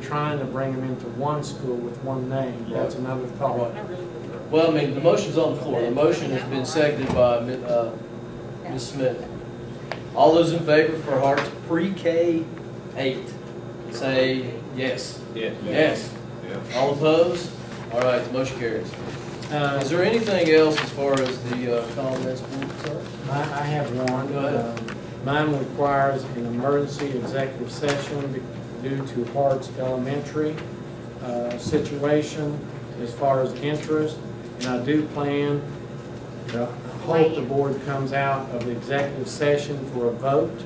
trying to bring them into one school with one name, that's another thought. Well, I mean, the motion's on the floor. The motion has been seconded by Mi- uh, Ms. Smith. All those in favor for Harts pre-K eight, say yes. Yes. Yes. All opposed? All right, the motion carries. Uh, Is there anything else as far as the uh, comments, sir? I, I have one. Go ahead. Um, Mine requires an emergency executive session be- due to Harts Elementary uh, situation as far as interest. And I do plan, to hope the board comes out of the executive session for a vote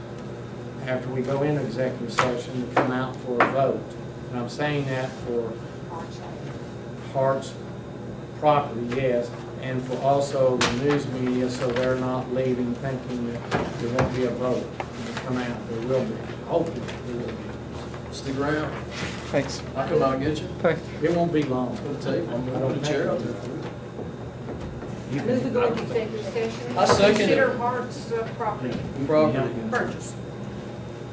after we go into executive session to come out for a vote. And I'm saying that for Hart's property, yes, and for also the news media, so they're not leaving thinking that there won't be a vote when they come out. There will be, hopefully, there will be. Stick around. Thanks. I'll come out and get you. Thanks. It won't be long. I'll tell you, I'm going to the chair. I'll do it. Move to go into executive session. I second it. Consider Hart's uh, property Property. purchase.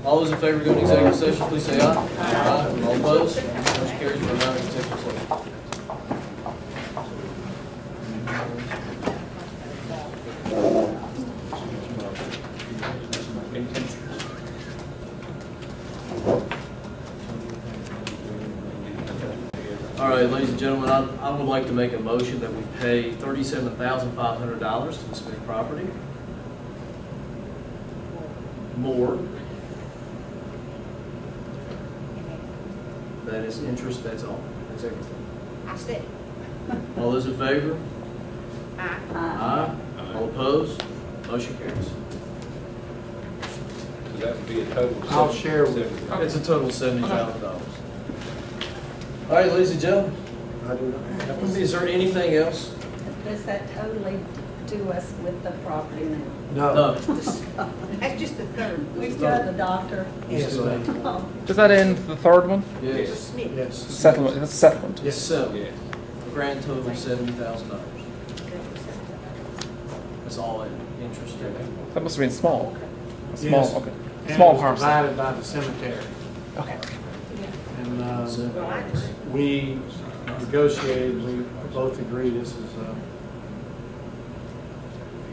All those in favor going to executive session, please say aye. Aye. All opposed? Motion carries for non executive session. All right, ladies and gentlemen, I, I would like to make a motion that we pay thirty-seven thousand five hundred dollars to the Smith property. More. That is interest, that's all. That's everything. I said, All those in favor? aye. Aye. All opposed? Motion carries. So that would be a total of. I'll seven- share with seven- It's a total of seventy thousand dollars. All right, ladies and gentlemen, I do not have a- is there anything else? Does that totally do us with the property now? No. That's just the third. We still have the doctor. Yes, ma'am. Oh, Does that end the third one? Mr. Yes. Smith. Yes. Settlement, that's settlement. Yes, seven. Yeah. A grand total of seventy thousand dollars. That's all in interest. That must have been small. Yes. Small, okay. And it Small was parcel. Divided by the cemetery. Okay. And um, Well, I agree. we negotiated, we both agree this is, uh,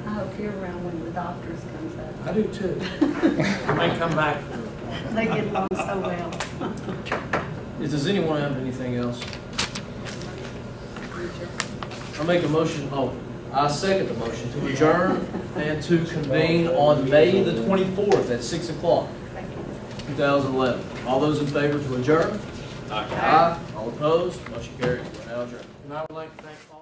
I hope you're around when the doctors comes up. I do too. I may come back for it. They get along so well. Does anyone have anything else? I make a motion, oh, I second the motion to adjourn and to convene on May the twenty-fourth at six o'clock, Thank you. two thousand eleven. All those in favor to adjourn? Aye. Aye. All opposed? Motion carries. We're now adjourned. And I would like to thank all.